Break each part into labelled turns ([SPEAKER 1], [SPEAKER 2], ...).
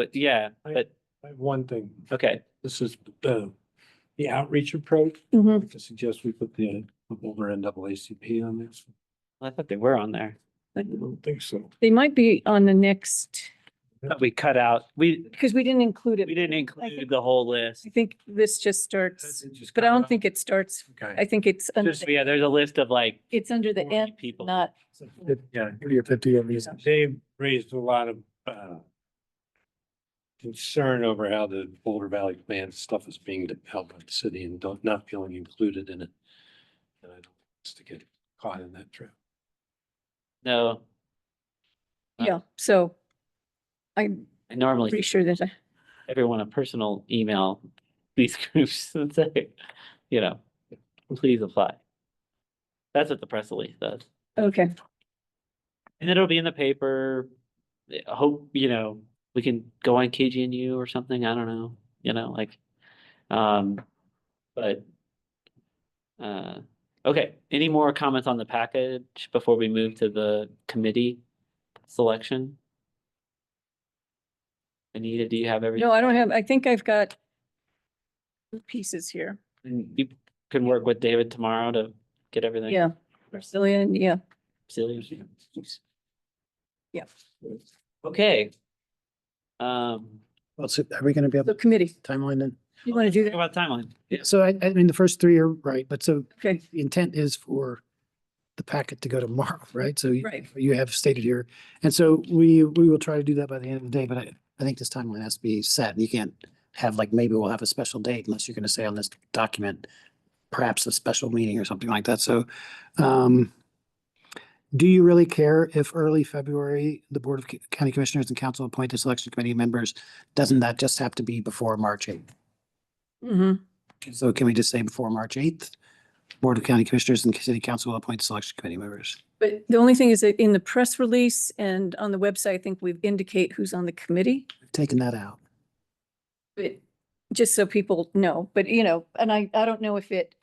[SPEAKER 1] But yeah,
[SPEAKER 2] I-
[SPEAKER 1] but,
[SPEAKER 2] I have One thing,
[SPEAKER 1] okay,
[SPEAKER 2] this is the, the outreach approach. I
[SPEAKER 3] Mhm.
[SPEAKER 2] could suggest we put the, the Boulder NAACP on this.
[SPEAKER 1] I thought they were on there.
[SPEAKER 2] I don't think so.
[SPEAKER 3] They might be on the next,
[SPEAKER 1] But we cut out, we,
[SPEAKER 3] because we didn't include
[SPEAKER 1] we
[SPEAKER 3] it.
[SPEAKER 1] didn't include the whole list.
[SPEAKER 3] I think this just starts, but I don't think it starts, I
[SPEAKER 2] Okay.
[SPEAKER 3] think it's, under
[SPEAKER 1] Just,
[SPEAKER 3] the-
[SPEAKER 1] yeah, there's a list of like
[SPEAKER 3] it's under the
[SPEAKER 1] forty
[SPEAKER 3] end,
[SPEAKER 1] people.
[SPEAKER 3] not,
[SPEAKER 2] Yeah, give you fifty of these. They've raised a lot of, uh, concern over how the Boulder Valley Plan stuff is being developed by the city and don't, not feeling included in it. And I don't want us to get caught in that trap.
[SPEAKER 1] No, Uh,
[SPEAKER 3] yeah, so I'm
[SPEAKER 1] I normally
[SPEAKER 3] pretty
[SPEAKER 1] give
[SPEAKER 3] sure that, I-
[SPEAKER 1] everyone a personal email, these groups and say, you know, please apply. That's what the press release does.
[SPEAKER 3] okay,
[SPEAKER 1] And it'll be in the paper. I Hope, you know, we can go on KGNU or something. I don't know, you know, like, um, but. Uh, okay, any more comments on the package before we move to the committee selection? Anita, do you have everything?
[SPEAKER 3] no, I don't have, I think I've got pieces here,
[SPEAKER 1] And You can work with David tomorrow to get everything.
[SPEAKER 3] yeah, Brazilian, yeah,
[SPEAKER 1] Celia?
[SPEAKER 3] yeah,
[SPEAKER 1] Okay. Um,
[SPEAKER 4] Well, so are we going to be
[SPEAKER 3] so
[SPEAKER 4] able to
[SPEAKER 3] committee,
[SPEAKER 4] timeline then?
[SPEAKER 3] you want to do
[SPEAKER 1] talk
[SPEAKER 3] that?
[SPEAKER 1] about timeline.
[SPEAKER 4] So I, I mean, the first three are right, but so
[SPEAKER 3] Okay,
[SPEAKER 4] the intent is for the packet to go tomorrow, right? So you-
[SPEAKER 3] Right.
[SPEAKER 4] you have stated here. And so we, we will try to do that by the end of the day, but I, I think this timeline has to be set. You can't have like, maybe we'll have a special date unless you're going to say on this document, perhaps a special meeting or something like that. So, um, do you really care if early February, the Board of Co- County Commissioners and Council appoint the selection committee members? Doesn't that just have to be before March eighth?
[SPEAKER 3] hmm
[SPEAKER 4] So can we just say before March eighth, Board of County Commissioners and City Council will appoint selection committee members?
[SPEAKER 3] but the only thing is that in the press release and on the website, I think we indicate who's on the committee.
[SPEAKER 4] I've Taken that out.
[SPEAKER 3] But just so people know, but you know, and I, I don't know if it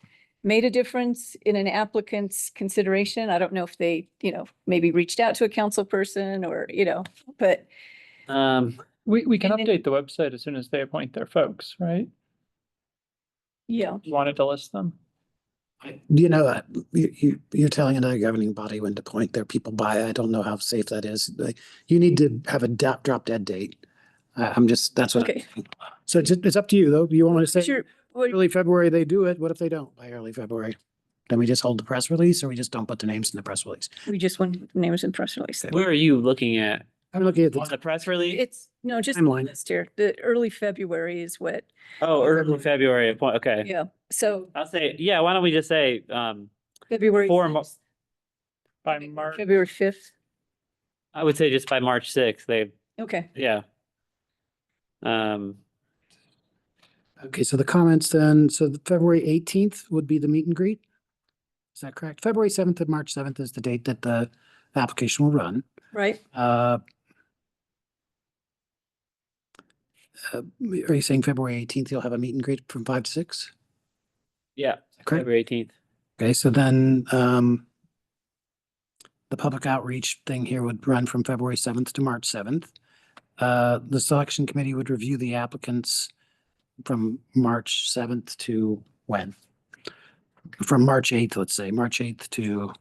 [SPEAKER 3] made a difference in an applicant's consideration. I don't know if they, you know, maybe reached out to a council person or, you know, but
[SPEAKER 1] Um,
[SPEAKER 5] We, we can
[SPEAKER 3] And then-
[SPEAKER 5] update the website as soon as they appoint their folks, right?
[SPEAKER 3] yeah.
[SPEAKER 5] You Wanted to list them.
[SPEAKER 4] You know, uh, you, you, you're telling another governing body when to appoint their people by. I don't know how safe that is. Like, you need to have a drop, drop dead date. I- I'm just, that's what. I
[SPEAKER 3] Okay.
[SPEAKER 4] think. So it's, it's up to you though. Do you want to say
[SPEAKER 3] Sure. What-
[SPEAKER 4] early February they do it? What if they don't by early February? Then we just hold the press release or we just don't put the names in the press release?
[SPEAKER 3] We just want names and press release. then.
[SPEAKER 1] where are you looking at?
[SPEAKER 4] I'm looking at
[SPEAKER 1] On
[SPEAKER 4] the
[SPEAKER 1] the press release?
[SPEAKER 3] It's, no, just
[SPEAKER 4] Timeline.
[SPEAKER 3] list here. The early February is what,
[SPEAKER 1] Oh, early February, appoint- okay.
[SPEAKER 3] yeah. So
[SPEAKER 1] I'll say, yeah, why don't we just say, um,
[SPEAKER 3] February,
[SPEAKER 1] Four mo-
[SPEAKER 5] By March,
[SPEAKER 3] February fifth.
[SPEAKER 1] I would say just by March sixth, they,
[SPEAKER 3] Okay.
[SPEAKER 1] yeah. Um,
[SPEAKER 4] Okay, so the comments then, so the February eighteenth would be the meet and greet? Is that correct? February seventh and March seventh is the date that the application will run.
[SPEAKER 3] Right.
[SPEAKER 4] Uh, uh, Are you saying February eighteenth, you'll have a meet and greet from five to six?
[SPEAKER 1] yeah,
[SPEAKER 4] Correct.
[SPEAKER 1] February eighteenth.
[SPEAKER 4] Okay, so then um, the public outreach thing here would run from February seventh to March seventh. Uh, the selection committee would review the applicants from March seventh to when? From March eighth, let's say, March eighth to,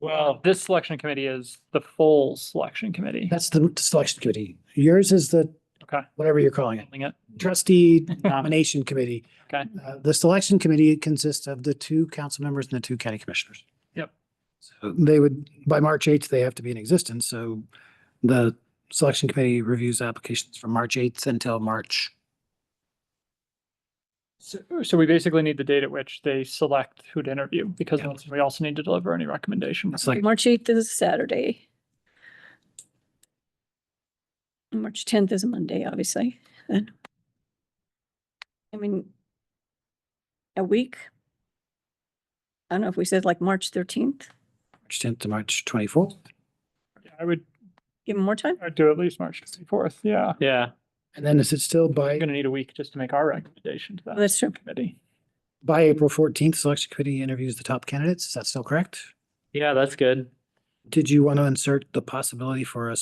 [SPEAKER 1] Well,
[SPEAKER 5] this selection committee is the full selection committee.
[SPEAKER 4] that's the selection committee. Yours is the,
[SPEAKER 5] Okay.
[SPEAKER 4] whatever you're calling it.
[SPEAKER 5] Calling it.
[SPEAKER 4] trustee nomination committee.
[SPEAKER 5] Okay.
[SPEAKER 4] Uh, The selection committee consists of the two council members and the two county commissioners.
[SPEAKER 5] Yep.
[SPEAKER 4] So they would, by March eighth, they have to be in existence, so the selection committee reviews applications from March eighth until March.
[SPEAKER 5] So, so we basically need the date at which they select who to interview because
[SPEAKER 4] Yeah.
[SPEAKER 5] once- we also need to deliver any recommendations.
[SPEAKER 4] It's like,
[SPEAKER 3] March eighth is a Saturday. And March tenth is a Monday, obviously, then. I mean, a week. I don't know if we said like March thirteenth,
[SPEAKER 4] March tenth to March twenty-fourth.
[SPEAKER 5] I would,
[SPEAKER 3] give them more time.
[SPEAKER 5] I'd do at least March twenty-fourth, yeah.
[SPEAKER 1] yeah,
[SPEAKER 4] And then is it still
[SPEAKER 5] We're
[SPEAKER 4] by,
[SPEAKER 5] gonna need a week just to make our recommendation to that
[SPEAKER 3] That's true.
[SPEAKER 5] committee.
[SPEAKER 4] by April fourteenth, selection committee interviews the top candidates? Is that still correct?
[SPEAKER 1] yeah, that's good.
[SPEAKER 4] Did you want to insert the possibility for a